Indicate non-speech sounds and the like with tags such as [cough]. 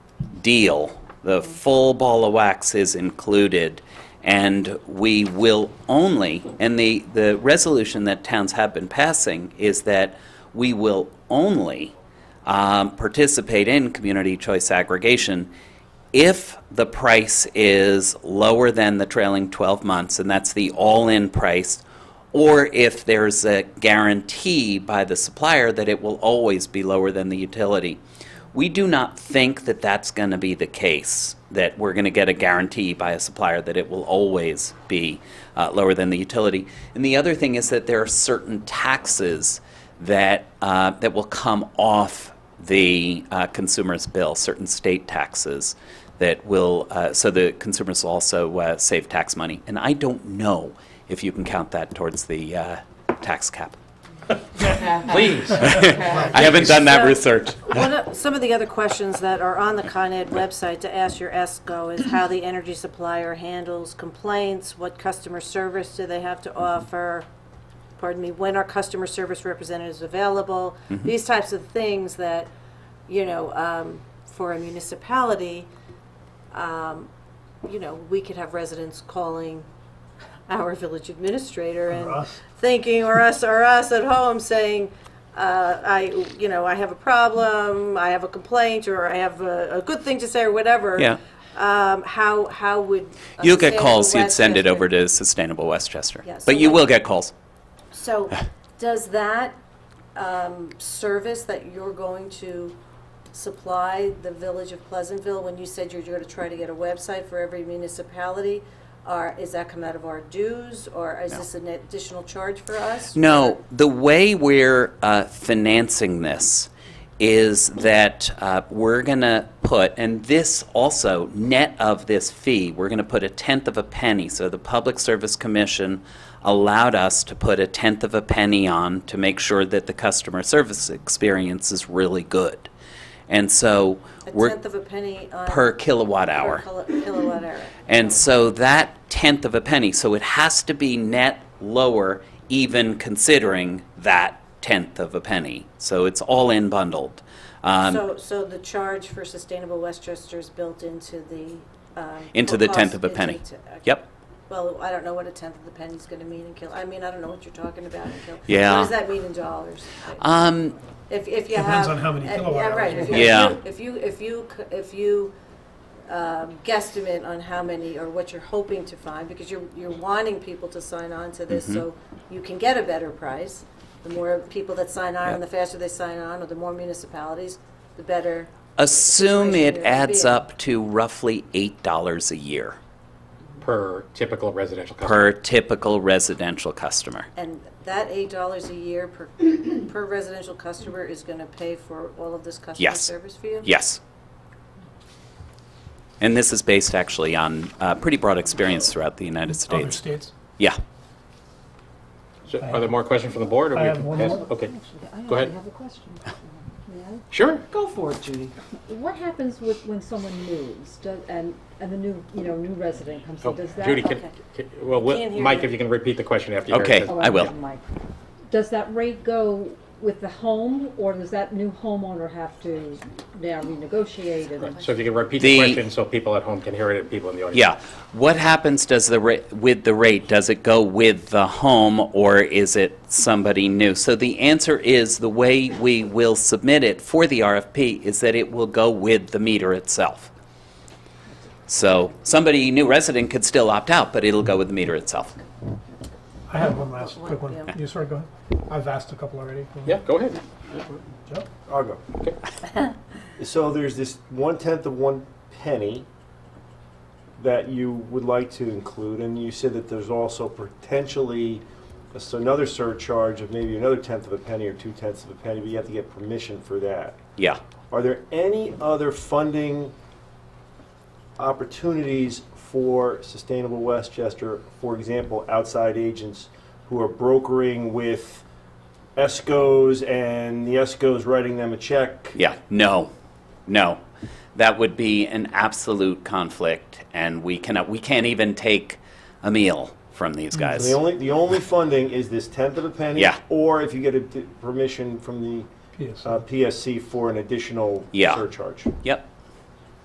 deal. The full ball of wax is included, and we will only, and the, the resolution that towns have been passing is that we will only um, participate in community choice aggregation if the price is lower than the trailing 12 months, and that's the all-in price, or if there's a guarantee by the supplier that it will always be lower than the utility. We do not think that that's going to be the case, that we're going to get a guarantee by a supplier that it will always be uh, lower than the utility. And the other thing is that there are certain taxes that, uh, that will come off the uh, consumer's bill, certain state taxes that will, uh, so the consumers will also uh, save tax money. And I don't know if you can count that towards the uh, tax [laughs] cap. Please. I haven't done that research. One of, some of the other questions that are on the Con Ed website to ask your ESCO is how the energy supplier handles complaints, what customer service do they have to offer? Pardon me, when are customer service representatives available? Mm-hmm. These types of things that, you know, um, for a municipality, um, you know, we could have residents calling our village administrator and us. thinking, or us, or us at home saying, uh, I, you know, I have a problem, I have a complaint, or I have a, a good thing to say, or whatever. Yeah. Um, how, how would. a You'll get sustainable calls, you'd West send it Chester- over to Sustainable Westchester. Yeah, so But you like- will get calls. So, does that, um, service that you're going to supply the village of Pleasantville, when you said you're gonna try to get a website for every municipality, are, is that come out of our dues, or is this an additional charge for us? No, the way we're uh, financing this is that uh, we're going to put, and this also, net of this fee, we're going to put a tenth of a penny. So the Public Service Commission allowed us to put a tenth of a penny on to make sure that the customer service experience is really good. And so A we're tenth of a penny on. per kilowatt per hour. kilo- Kilowatt hour. And so that tenth of a penny, so it has to be net lower even considering that tenth of a penny. So it's all in bundled. Um, So, so the charge for Sustainable Westchester is built into the. um, Into the cost- tenth of a into penny. the te- okay. Yep. Well, I don't know what a tenth of the penny's gonna mean in kil, I mean, I don't know what you're talking about in kil. Yeah. What does that mean in dollars? Um, If, if you have. Depends on how many uh, kilowatt yeah, hours right. If you you- want. If you, if you, c- if you um, guesstimate on how many or what you're hoping to find, because you're, you're wanting people to sign on to Mm-hmm. this so you can get a better price. The more people that sign on, Yep. and the faster they sign on, or the more municipalities, the better. assume Situation it would adds be. up to roughly eight dollars a year per typical residential customer. per typical residential customer. And that eight dollars a year per, per residential customer is gonna pay for all of this customer Yes. service for you? Yes. And this is based actually on uh, pretty broad experience throughout the United Other States. states. Yeah. So Are there more questions from the board? or I we have can one pass- more. Okay, Go Actually, ahead. I have a question. May sure. Go for it, Judy. I? What happens with, when someone moves, does, and, and the new, you know, new resident comes Oh, in, does that? Judy, can, okay. can- well, we'll- Can't hear Mike, you. if you can repeat the question after you. hear it, Okay. because- Oh, I will. have a mic. Does that rate go with the home, or does that new homeowner have to now renegotiate and? So if you can repeat the The- question so people at home can hear it and people in the audience. Yeah. What happens does the ra- with the rate? Does it go with the home or is it somebody new? So the answer is the way we will submit it for the RFP is that it will go with the meter itself. So somebody new resident could still opt out, but it'll go with the meter itself. I have one last quick one. Yeah. You sorry, go ahead. I've asked a couple already. Yeah, go ahead. Joe? I'll go. So there's this one tenth of one penny that you would like to include, and you said that there's also potentially s- another surcharge of maybe another tenth of a penny or two tenths of a penny, but you have to get permission for that. Yeah. Are there any other funding opportunities for Sustainable Westchester, for example, outside agents who are brokering with ESCOs and the ESCOs writing them a check? Yeah. No. No. That would be an absolute conflict and we cannot we can't even take a meal from these guys. Mm. The only, the only funding is this tenth of a penny? Yeah. Or if you get a d- permission from the Yes. uh, PSC for an additional Yeah. surcharge? Yep.